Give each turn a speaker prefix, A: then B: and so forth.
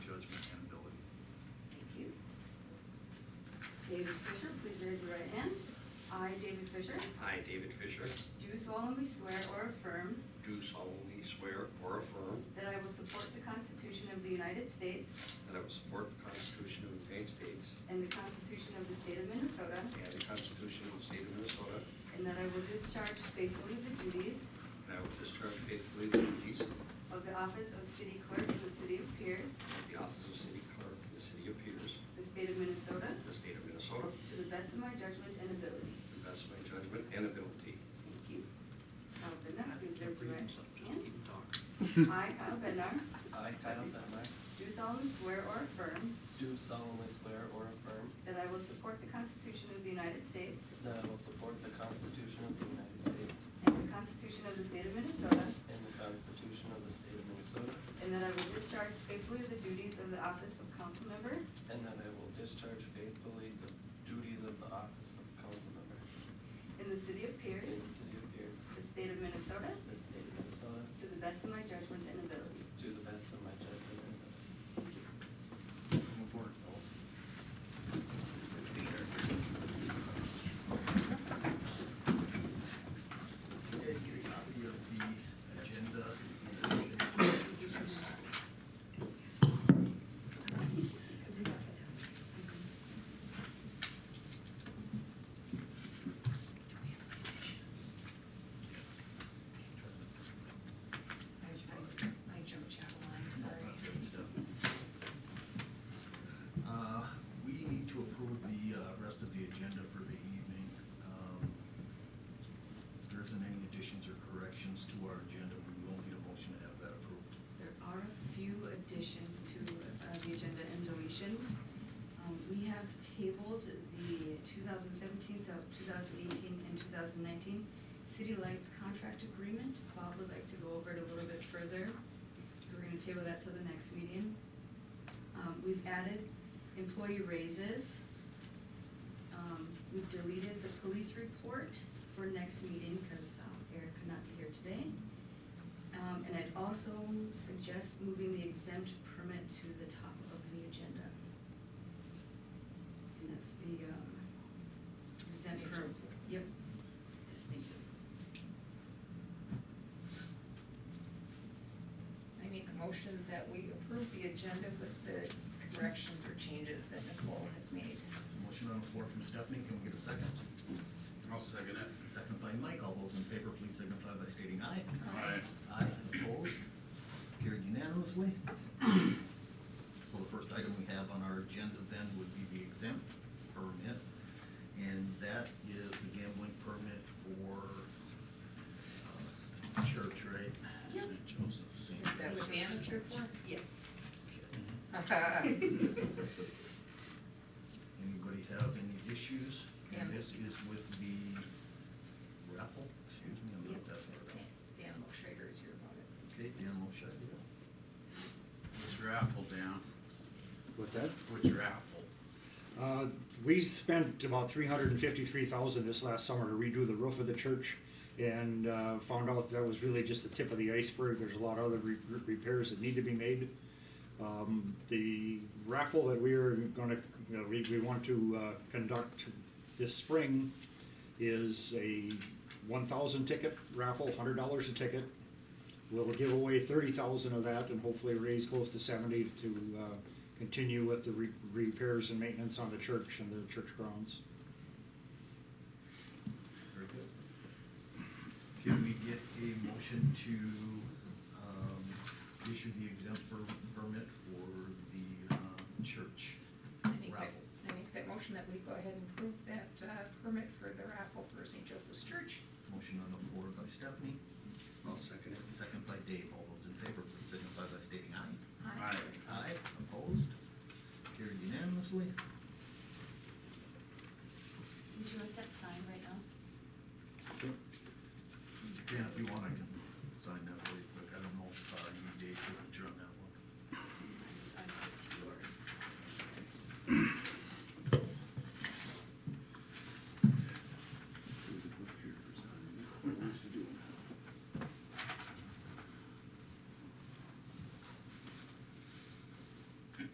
A: David Fisher, please raise your right hand. I, David Fisher,
B: I, David Fisher,
A: do solemnly swear or affirm
B: do solemnly swear or affirm
A: that I will support the Constitution of the United States
B: that I will support the Constitution of the United States
A: and the Constitution of the State of Minnesota,
B: and the Constitution of the State of Minnesota,
A: and that I will discharge faithfully the duties
B: and I will discharge faithfully the duties of
A: of the office of city clerk in the city of Pierce,
B: the office of city clerk in the city of Peters,
A: the state of Minnesota,
B: the state of Minnesota,
A: to the best of my judgment and ability.
B: to the best of my judgment and ability.
A: Thank you. Kyle Bednar, please raise your right hand.
C: himself.
A: I, Kyle Bednar,
D: I, Kyle Bentley,
A: do solemnly swear or affirm
D: do solemnly swear or affirm
A: that I will support the Constitution of the United States
D: that I will support the Constitution of the United States
A: and the Constitution of the State of Minnesota,
D: and the Constitution of the State of Minnesota,
A: and that I will discharge faithfully the duties of the office of council member
D: and that I will discharge faithfully the duties of the office of council member
A: in the city of
D: in the
A: Pierce,
D: city of Pierce,
A: the state of Minnesota,
D: the state of Minnesota,
A: to the best of my judgment and ability.
D: to the best of my judgment and ability.
E: You guys get a copy of the agenda? Does
F: I, I- I jumped you out of line, sorry.
E: Uh, We need to approve the uh, rest of the agenda for the evening. Um, If there isn't any additions or corrections to our agenda, we will need a motion to have that approved.
F: There are a few additions to uh, the agenda and deletions. Um, We have tabled the 2017, to 2018, and 2019 city lights contract agreement. Bob would like to go over it a little bit further, so we're going to table that till the next meeting. Um, We've added employee raises. Um, We've deleted the police report for next meeting because Eric could not be here today. Um, And I'd also suggest moving the exempt permit to the top of the agenda. And that's the um, exempt
G: St.
F: permit.
G: Joseph.
F: Yep. Yes, thank you.
G: I make a motion that we approve the agenda with the corrections or changes that Nicole has made.
E: Motion on the floor from Stephanie, can we get a second?
C: I'll second it.
E: Second by Mike, all those in favor, please signify by stating aye.
C: Aye.
E: Aye, opposed, carried unanimously. So the first item we have on our agenda then would be the exempt permit, and that is the gambling permit for uh, church, right?
F: Yep.
E: St. Joseph's. St.
G: Is that what Dan is here for?
F: Yes.
E: Anybody have any issues?
G: Yeah.
E: And this is with the raffle, excuse me, I'm not
F: Yep.
E: that far down.
G: Dan Schrader is here about it.
E: Okay, Dan Moshe, yeah.
C: What's raffle down?
H: What's that?
C: What's raffle?
H: Uh, we spent about three hundred and fifty-three thousand this last summer to redo the roof of the church and, uh, found out that was really just the tip of the iceberg. There's a lot of other re- repairs that need to be made. Um, the raffle that we are gonna, you know, we, we want to, uh, conduct this spring is a one thousand ticket raffle, hundred dollars a ticket. We'll give away thirty thousand of that and hopefully raise close to seventy to, uh, continue with the re- repairs and maintenance on the church and the church grounds.
E: Very good. Can we get a motion to, um, issue the exempt per- permit for the, um, church
G: I make that,
E: raffle?
G: I make that motion that we go ahead and approve that uh, permit for the raffle for St. Joseph's Church.
E: Motion on the floor by Stephanie,
B: I'll second it.
E: second by Dave. All those in favor, please signify by stating aye.
G: Aye.
E: Aye, opposed? Carried unanimously. uh,